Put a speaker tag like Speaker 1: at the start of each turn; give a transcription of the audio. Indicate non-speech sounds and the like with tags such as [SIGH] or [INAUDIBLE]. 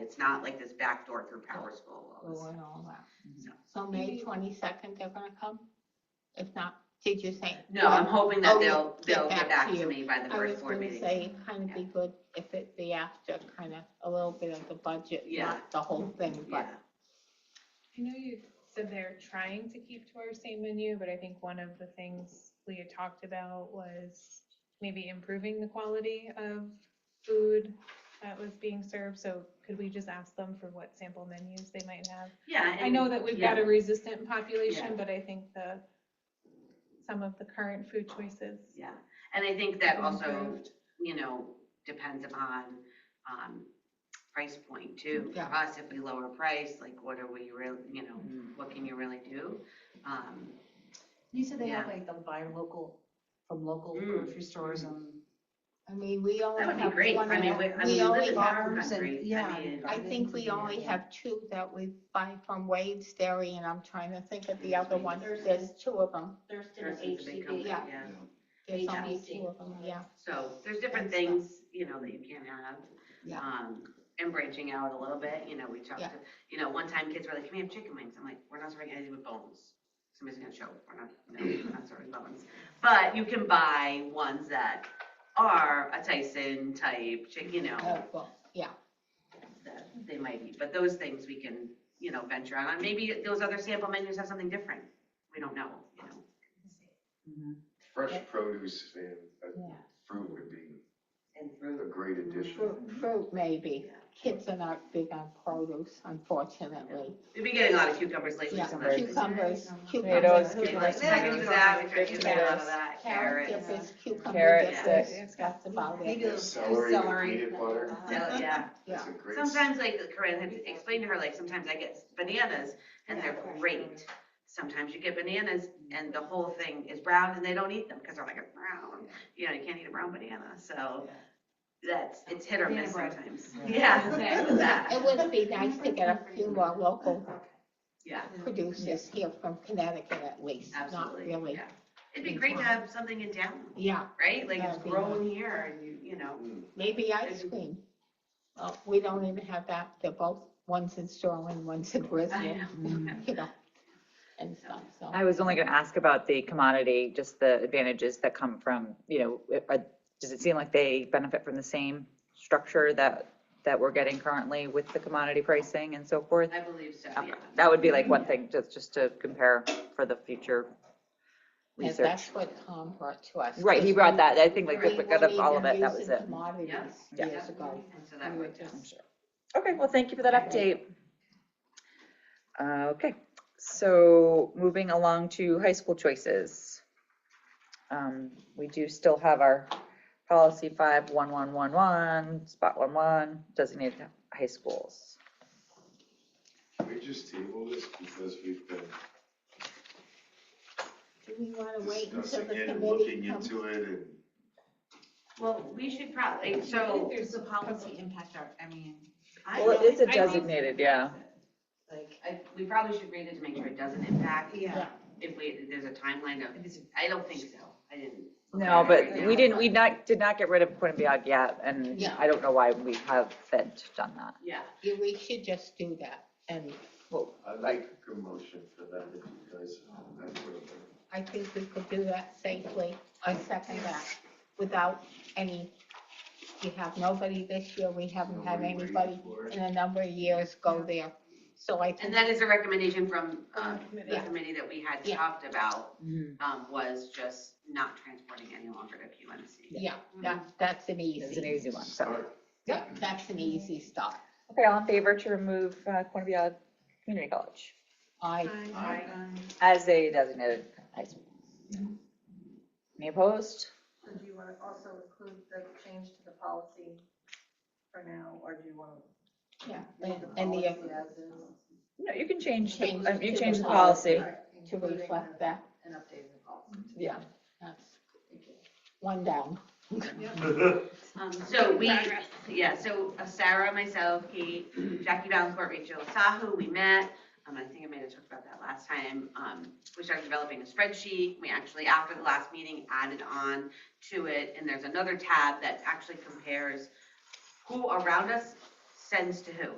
Speaker 1: It's not like this backdoor through Power School. all this-
Speaker 2: Oh, and all that.
Speaker 1: No.
Speaker 2: So May twenty-second, they're gonna come? If not, did you say?
Speaker 1: No, I'm hoping that
Speaker 2: Oh,
Speaker 1: they'll,
Speaker 2: get
Speaker 1: they'll get
Speaker 2: back
Speaker 1: back
Speaker 2: to
Speaker 1: to
Speaker 2: you.
Speaker 1: me by the
Speaker 2: I was
Speaker 1: first board
Speaker 2: gonna
Speaker 1: meeting.
Speaker 2: say, kind of be good if it be after, kind of a little bit of the budget,
Speaker 1: Yeah.
Speaker 2: not the whole thing, but
Speaker 1: Yeah.
Speaker 3: I know you said they're trying to keep to our same menu, but I think one of the things Leah talked about was maybe improving the quality of food that was being served, so could we just ask them for what sample menus they might have?
Speaker 1: Yeah.
Speaker 3: I know that we've got
Speaker 1: yeah.
Speaker 3: a resistant
Speaker 1: Yeah.
Speaker 3: population, but I think the, some of the current food choices.
Speaker 1: Yeah, and I think that
Speaker 3: have
Speaker 1: also,
Speaker 3: improved.
Speaker 1: you know, depends upon, um, price point too. For
Speaker 2: Yeah.
Speaker 1: us, if we lower price, like what are we real, you know,
Speaker 2: Mm-hmm.
Speaker 1: what can you really do? Um,
Speaker 4: You said they have
Speaker 1: Yeah.
Speaker 4: like the buy local, from local
Speaker 1: Mm.
Speaker 4: grocery stores and
Speaker 2: I mean, we only
Speaker 1: That
Speaker 2: have
Speaker 1: would
Speaker 2: one.
Speaker 1: be great, I mean,
Speaker 2: that-
Speaker 1: we, I
Speaker 2: we
Speaker 1: mean, we
Speaker 2: only
Speaker 1: live in
Speaker 2: have-
Speaker 1: God's
Speaker 4: farms and-
Speaker 1: country,
Speaker 4: yeah.
Speaker 1: I mean,
Speaker 2: I think we only have two that we buy from Wade's Dairy, and I'm trying to think of the other one. There's two of them.
Speaker 5: Thurston or
Speaker 1: Thurston's a big company,
Speaker 5: HCB.
Speaker 2: Yeah.
Speaker 1: yeah.
Speaker 2: There's only
Speaker 5: HBC.
Speaker 2: two of them, yeah.
Speaker 1: So there's different
Speaker 2: And stuff.
Speaker 1: things, you know, that you can have.
Speaker 2: Yeah.
Speaker 1: Um, and branching out a little bit, you know, we talked,
Speaker 2: Yeah.
Speaker 1: to- you know, one time kids were like, can we have chicken wings? I'm like, we're not serving anything with bones. Somebody's gonna show, up. we're not, no, we're not serving bones. But you can buy ones that are a Tyson type chicken, you know,
Speaker 2: Oh, well, yeah,
Speaker 1: that they might eat. But those things we can, you know, venture out on. Maybe those other sample menus have something different. We don't know, you know.
Speaker 4: Mm-hmm.
Speaker 6: Fresh
Speaker 2: Yeah.
Speaker 6: produce and uh,
Speaker 2: yeah.
Speaker 6: fruit would be
Speaker 1: And
Speaker 6: a great addition.
Speaker 2: Fruit, fruit maybe.
Speaker 1: Yeah.
Speaker 2: Kids are not big on produce, unfortunately.
Speaker 1: We've been getting a lot of cucumbers lately.
Speaker 2: Yeah,
Speaker 1: so that's-
Speaker 2: cucumbers, cucumbers.
Speaker 7: Tomatoes,
Speaker 1: Kids like,
Speaker 7: cucumbers,
Speaker 1: "Yeah, I can do that. We try to get a lot of
Speaker 7: tomatoes,
Speaker 1: that.
Speaker 2: Carrot
Speaker 1: Carrots.
Speaker 2: dippers, cucumber
Speaker 7: Carrot
Speaker 2: dippers,
Speaker 3: sticks.
Speaker 2: that's about
Speaker 4: maybe
Speaker 2: it.
Speaker 6: Yeah,
Speaker 4: those
Speaker 6: celery with
Speaker 4: celery.
Speaker 6: peanut butter.
Speaker 1: Yeah, Oh, [LAUGHS] yeah.
Speaker 2: Yeah.
Speaker 6: It's a great. s-
Speaker 1: Sometimes like Corinne had explained to her, like sometimes I get bananas and [LAUGHS] they're great. Sometimes you get bananas and the whole thing is brown and they don't eat them because they're like, it's brown. You know, you can't eat a brown banana, so that's, it's hit or miss
Speaker 5: Banana bread.
Speaker 1: sometimes. Yeah,
Speaker 5: Okay.
Speaker 1: that,
Speaker 2: It would be nice to get a few more local
Speaker 1: [LAUGHS] yeah,
Speaker 2: producers here from Connecticut at least, not
Speaker 1: absolutely,
Speaker 2: really.
Speaker 1: yeah. It'd be great to have something in town,
Speaker 2: Yeah,
Speaker 1: right? Like it's
Speaker 2: That'd be
Speaker 1: grown here and you, you know,
Speaker 6: Mm.
Speaker 2: maybe ice cream. Well, we don't even have that, they're both, one's in Sterling, one's in
Speaker 1: [LAUGHS]
Speaker 2: Brisbane, you know, and stuff, so.
Speaker 7: I was only going to ask about the commodity, just the advantages that come from, you know, it- are- does it seem like they benefit from the same structure that, that we're getting currently with the commodity pricing and so forth?
Speaker 1: I believe so,
Speaker 7: Okay,
Speaker 1: yeah.
Speaker 7: That would be like one thing, just, just to compare for the future
Speaker 2: And
Speaker 7: research.
Speaker 2: that's what Tom brought to us.
Speaker 7: Right, he
Speaker 2: 'cause
Speaker 7: brought
Speaker 2: we-
Speaker 7: that, I think like,
Speaker 1: Right.
Speaker 7: we got up all of it, that was
Speaker 2: Using
Speaker 7: it.
Speaker 2: Commodities
Speaker 1: Yeah.
Speaker 2: years ago.
Speaker 1: And so
Speaker 2: We
Speaker 1: that
Speaker 2: were
Speaker 1: would
Speaker 2: just-
Speaker 7: I'm sure. Okay, well, thank you for that update. Uh, Okay, so moving along to high school choices. Um, We do still have our policy five one one one one, spot one one, designated high schools.
Speaker 6: Can we just table this because we've been
Speaker 2: Do we want to wait until
Speaker 6: discussing
Speaker 2: the
Speaker 6: it and
Speaker 2: committee
Speaker 6: looking
Speaker 2: comes?
Speaker 6: into it and.
Speaker 1: Well, we should probably, so
Speaker 4: There's a policy impact art, I mean.
Speaker 1: I
Speaker 7: Well, it
Speaker 1: don't-
Speaker 7: is a
Speaker 3: I think-
Speaker 7: designated, yeah.
Speaker 4: Like,
Speaker 1: I, we probably should read it to make sure it doesn't impact.
Speaker 4: yeah.
Speaker 1: If we, if there's a timeline of, I don't think so, I didn't.
Speaker 7: No, but we
Speaker 1: Yeah.
Speaker 7: didn't, we not, did not get rid of Quinnipiac yet, and
Speaker 2: Yeah.
Speaker 7: I don't know why we haven't done that.
Speaker 1: Yeah,
Speaker 2: Yeah, we should just do that, and
Speaker 6: I'd like a motion for that if you guys. that's what I'm-
Speaker 2: I think we could do that safely, I second that, without any, we have nobody this year, we haven't had
Speaker 6: Nobody waiting
Speaker 2: anybody
Speaker 6: for it.
Speaker 2: in a number of years go there, so I
Speaker 1: and
Speaker 2: think,
Speaker 1: that is a recommendation from, uh, the
Speaker 2: Yeah.
Speaker 1: committee that we had
Speaker 2: Yeah.
Speaker 1: talked about,
Speaker 7: Mhm.
Speaker 1: um, was just not transporting any longer to PUNC.
Speaker 2: yeah, that, that's an
Speaker 7: It's an
Speaker 2: easy,
Speaker 7: easy one, so.
Speaker 6: Start
Speaker 2: yep, that's an easy stop.
Speaker 7: Okay, all in favor to remove uh, Quinnipiac Community College
Speaker 2: I,
Speaker 3: I-
Speaker 1: Aye.
Speaker 7: as a designated high school? Any opposed?
Speaker 8: So do you want to also include the change to the policy for now, or do you want to
Speaker 2: yeah,
Speaker 8: leave
Speaker 2: and-
Speaker 8: the
Speaker 2: and
Speaker 8: policy
Speaker 2: the,
Speaker 8: as is?
Speaker 7: No, you can change, the-
Speaker 2: Change
Speaker 7: um, you
Speaker 2: to
Speaker 7: change
Speaker 2: the
Speaker 7: the policy.
Speaker 8: Right,
Speaker 2: to
Speaker 8: including
Speaker 2: reflect
Speaker 8: the-
Speaker 2: that,
Speaker 8: And updating the policy.
Speaker 2: yeah, that's one down. [LAUGHS]
Speaker 1: Um, so we, yeah, so uh, Sarah, myself, Kate, Jackie Valencourt, Rachel Sahu, we met. Um, I think I might have talked about that last time. Um, we started developing a spreadsheet. We actually, after the last meeting, added on to it. And there's another tab that actually compares who around us sends to who.